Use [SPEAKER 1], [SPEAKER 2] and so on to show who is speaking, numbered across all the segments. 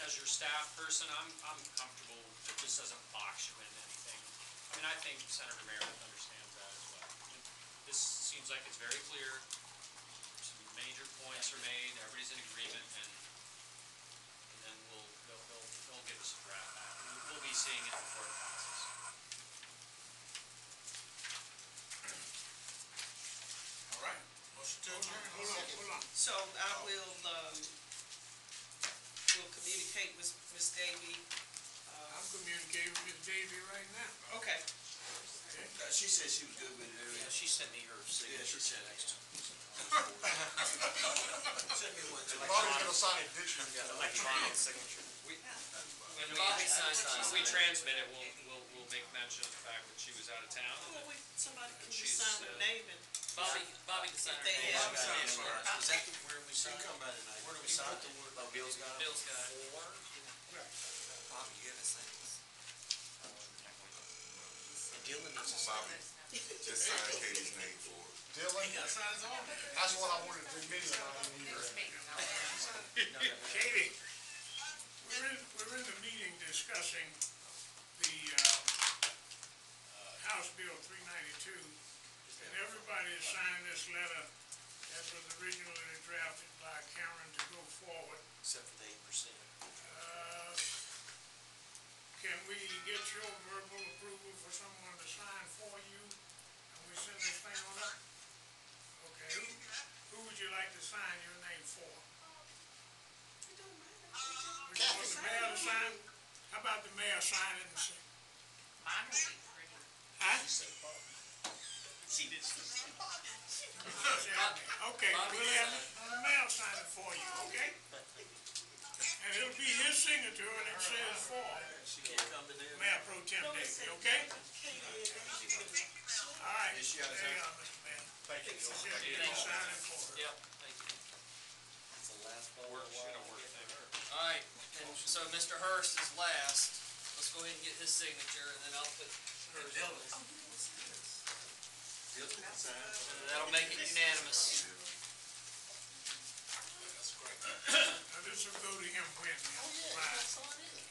[SPEAKER 1] staff person, I'm, I'm comfortable that this doesn't box you into anything. I mean, I think Senator Meredith understands that as well. This seems like it's very clear, some major points are made, everybody's in agreement, and, and then we'll, they'll, they'll, they'll give us a draft. We'll- We'll be seeing it before it passes.
[SPEAKER 2] All right, motion to adjourn.
[SPEAKER 3] Hold on, hold on.
[SPEAKER 4] So I will, um, will communicate with Ms. Davy.
[SPEAKER 3] I'm communicating with Davy right now.
[SPEAKER 4] Okay,
[SPEAKER 2] Uh, She said she was good with it,
[SPEAKER 5] Yeah,
[SPEAKER 2] everything.
[SPEAKER 5] she sent me her
[SPEAKER 2] Yeah,
[SPEAKER 5] signature.
[SPEAKER 2] she said that. Send me one.
[SPEAKER 6] Bobby's gonna sign it digitally.
[SPEAKER 5] Electronic signature.
[SPEAKER 1] When we, when we transmit it, we'll, we'll, we'll make mention of the fact that she was out of town. and
[SPEAKER 4] well,
[SPEAKER 1] that-
[SPEAKER 4] we, somebody can
[SPEAKER 1] She's,
[SPEAKER 4] just sign the
[SPEAKER 1] uh,
[SPEAKER 4] name and
[SPEAKER 7] Bobby, Bobby can sign her
[SPEAKER 4] They
[SPEAKER 7] name.
[SPEAKER 4] have-
[SPEAKER 2] Bobby signed it for us.
[SPEAKER 5] Is that the- where we
[SPEAKER 2] She
[SPEAKER 5] signed?
[SPEAKER 2] can come by tonight.
[SPEAKER 5] Where do we
[SPEAKER 2] You
[SPEAKER 5] sign?
[SPEAKER 2] put the word-
[SPEAKER 5] Oh, Bill's got it?
[SPEAKER 7] Bill's got it.
[SPEAKER 5] Four?
[SPEAKER 2] Bobby, you haven't signed this.
[SPEAKER 5] And Dylan needs to sign
[SPEAKER 6] Bobby,
[SPEAKER 5] it.
[SPEAKER 6] just sign Katie's name for it.
[SPEAKER 2] He
[SPEAKER 6] Dylan,
[SPEAKER 2] got signed his own.
[SPEAKER 6] that's what I wanted to admit, and I didn't hear it.
[SPEAKER 3] Katie, we're in, we're in the meeting discussing the, uh, House Bill three ninety-two, and everybody has signed this letter that was originally drafted by Karen to go forward.
[SPEAKER 5] Except for the eight percent.
[SPEAKER 3] Uh, Can we get your verbal approval for someone to sign for you, and we send this thing on up? Okay, who, who would you like to sign your name for? Would you want the mayor to sign? How about the mayor sign it and say?
[SPEAKER 4] Mine will be pretty.
[SPEAKER 3] Huh?
[SPEAKER 4] She did.
[SPEAKER 3] Okay, we'll have the mayor sign it for you, okay? And it'll be his signature, and it says for
[SPEAKER 2] She can't come to them.
[SPEAKER 3] Mayor Pro Tem Davy, okay? All right.
[SPEAKER 2] Yes, you gotta
[SPEAKER 3] There you
[SPEAKER 2] sign.
[SPEAKER 3] are, Mr. Mayor.
[SPEAKER 2] Thank you.
[SPEAKER 3] Just get it signed for her.
[SPEAKER 7] Yep, thank you.
[SPEAKER 5] It's the last ball.
[SPEAKER 1] Work, should have worked there.
[SPEAKER 7] All right, and so Mr. Hurst is last. Let's go ahead and get his signature, and then I'll put,
[SPEAKER 2] Dylan signed for
[SPEAKER 7] and that'll make it unanimous.
[SPEAKER 2] it. That's great.
[SPEAKER 3] Now, this will go to him when, by,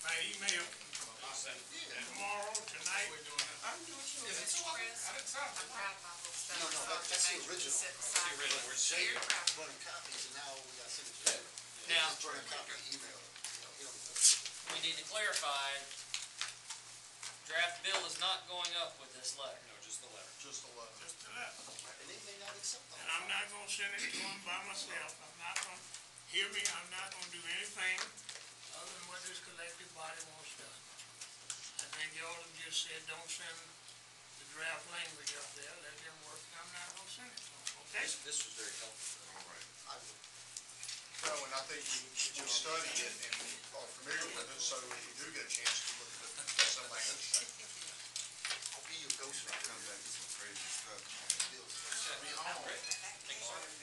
[SPEAKER 3] by email, tomorrow, tonight.
[SPEAKER 2] No, no, that- that's the original.
[SPEAKER 1] Get rid of the word
[SPEAKER 2] Jay, running copies, and now we got signatures.
[SPEAKER 7] Now,
[SPEAKER 2] Just run a copy, email it. You know, you don't-
[SPEAKER 7] we need to clarify, draft bill is not going up with this letter.
[SPEAKER 1] No, just the letter.
[SPEAKER 6] Just a letter.
[SPEAKER 3] Just a letter.
[SPEAKER 2] And they may not accept them.
[SPEAKER 3] And I'm not gonna send it to him by myself, I'm not gonna, hear me, I'm not gonna do anything other than what this collective body wants done. I think y'all have just said, don't send the draft language up there, let them work, and I'm not gonna send it to them, okay?
[SPEAKER 5] This, this was very helpful.
[SPEAKER 6] All right. No, and I think you, you study it and are familiar with it, so if you do get a chance to look at it, some language.
[SPEAKER 2] I'll be your ghostwriter. Come back with some crazy stuff.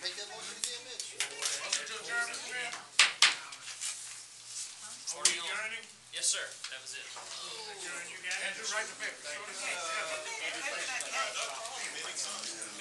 [SPEAKER 2] Make that motion again, Mitch.
[SPEAKER 3] Attorney, Smith? Are we adjourning?
[SPEAKER 7] Yes, sir, that was it.
[SPEAKER 3] Adjourn, you guys?
[SPEAKER 6] Andrew, write the paper.
[SPEAKER 4] Hey, hey, hey, hey.